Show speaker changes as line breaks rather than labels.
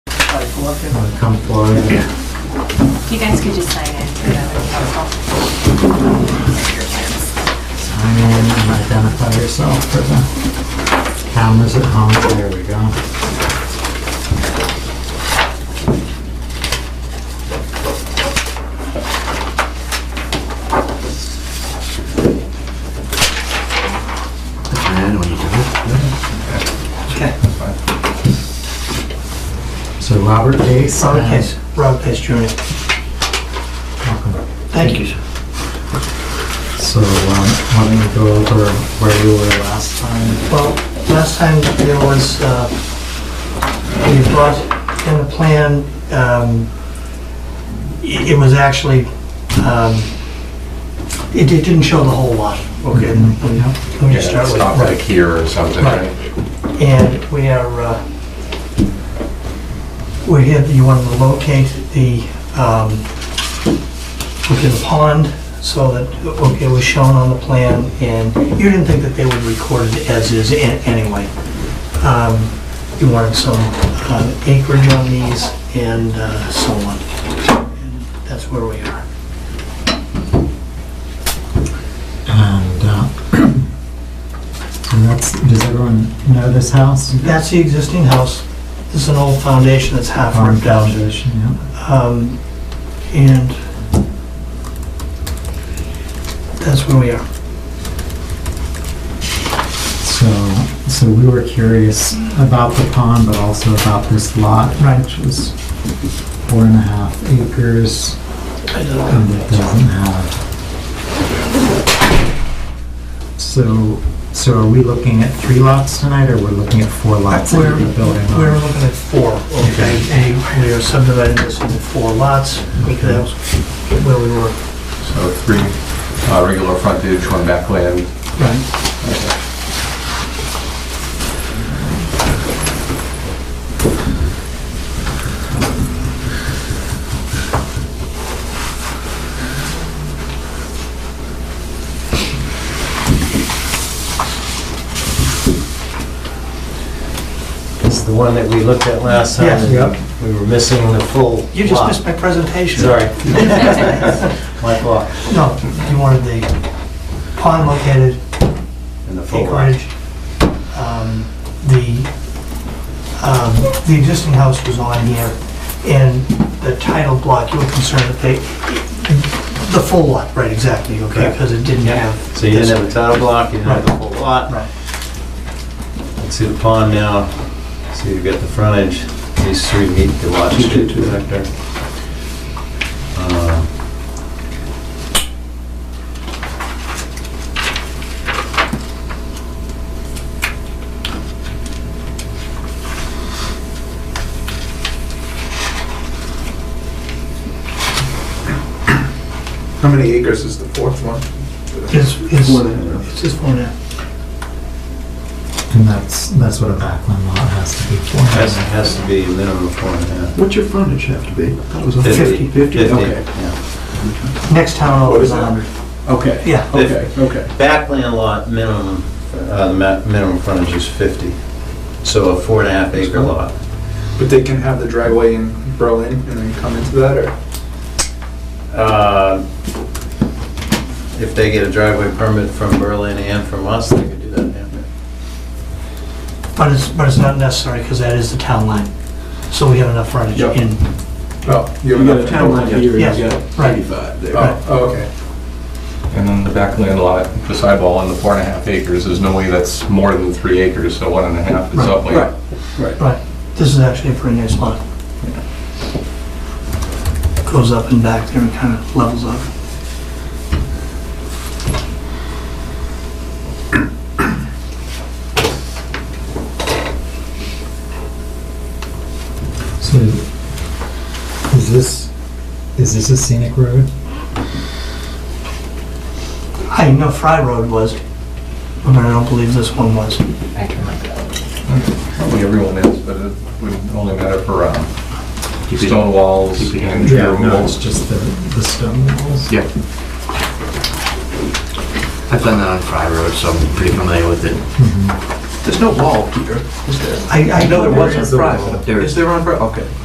come forward.
You guys could just sign in. that would be helpful.
Sign in and identify yourself for the cameras at home. There we go. And when you do it. So Robert Case.
Robert Case, Robert Case Jr.
Welcome.
Thank you, sir.
So, um, why don't you go over where you were last time?
Well, last time there was, uh, we brought in the plan, um, it it was actually, um, it it didn't show the whole lot. Okay. Let me
Yeah,
just start
it's
with.
not
right.
like here or something,
Right.
right?
And we are, uh, we're here, you want to locate the, um, look at the pond so that, okay, it was shown on the plan and you didn't think that they would record it as is a- anyway. Um, You wanted some um, acreage on these and uh, so on. And That's where we are.
And, uh, and that's, does everyone know this house?
That's the existing house. This is an old foundation that's half
Farm
ripped out.
Foundation, yeah.
Um, And that's where we are.
So, so we were curious about the pond, but also about this lot, right, which was four and a half acres,
I don't know.
and it doesn't have. So, so are we looking at three lots tonight, or we're looking at four lots that
We're,
you're building on?
we're looking at four, okay? And we are subdividing this into four lots, because that was where we were.
So three uh, regular frontage, one backland.
Right.
This is the one that we looked at last time.
Yes.
Yep.
and We were missing the full
You just
lot.
missed my presentation.
Sorry. My fault.
No, you wanted the pond located,
And the full lot.
acreage. Um, The, um, the existing house was on here, and the title block, you were concerned that they, the full lot, right, exactly, okay,
Correct.
because it didn't have.
So you didn't
this-
have a title block, you didn't have the full lot.
Right,
Let's see the pond now. So you've got the frontage. These three meet the lot shape factor. Uh,
How many acres is the fourth one?
it's, it's,
Four and a half.
it's just one, half.
And that's, that's what a backland lot has to be for.
Has, has to be a minimum of four and a half.
What's your frontage have to be? That was a
Fifty.
Fifty, okay.
yeah.
next town over
What
is
is
a
that?
hundred.
Okay.
Yeah.
Okay, okay.
Backland lot minimum, uh, the ma- minimum frontage is 50. So a four and a half acre lot.
But they can have the driveway in Berlin and then come into that, or?
Uh, If they get a driveway permit from Berlin and from us, they could do that, yeah.
But it's, but it's not necessary, because that is the town line, so we have enough frontage
Yep.
in.
Oh, you
We
have
got
enough
a town line here, and we
Yes.
got
Right.
85 there.
Oh, oh, okay.
And then the backland lot, the sidewall on the four and a half acres, there's no way that's more than three acres, so one and a half is
Right,
upland.
Right, this is actually a pretty nice lot. Goes up and back there and kind of levels up.
So, is this, is this a scenic road?
I know Fry Road was, but I don't believe this one was.
I can look it up.
Probably everyone is, but it would only matter for um, stone walls
keep it-
and tree
No, it's
removals.
just the, the stone walls.
Yeah. I've done that on Fry Road, so I'm pretty familiar with it. Mm-hmm.
There's no wall here, is there?
I, I know there
There is
wasn't.
no wall. There
Is
is.
there on Berlin? Okay.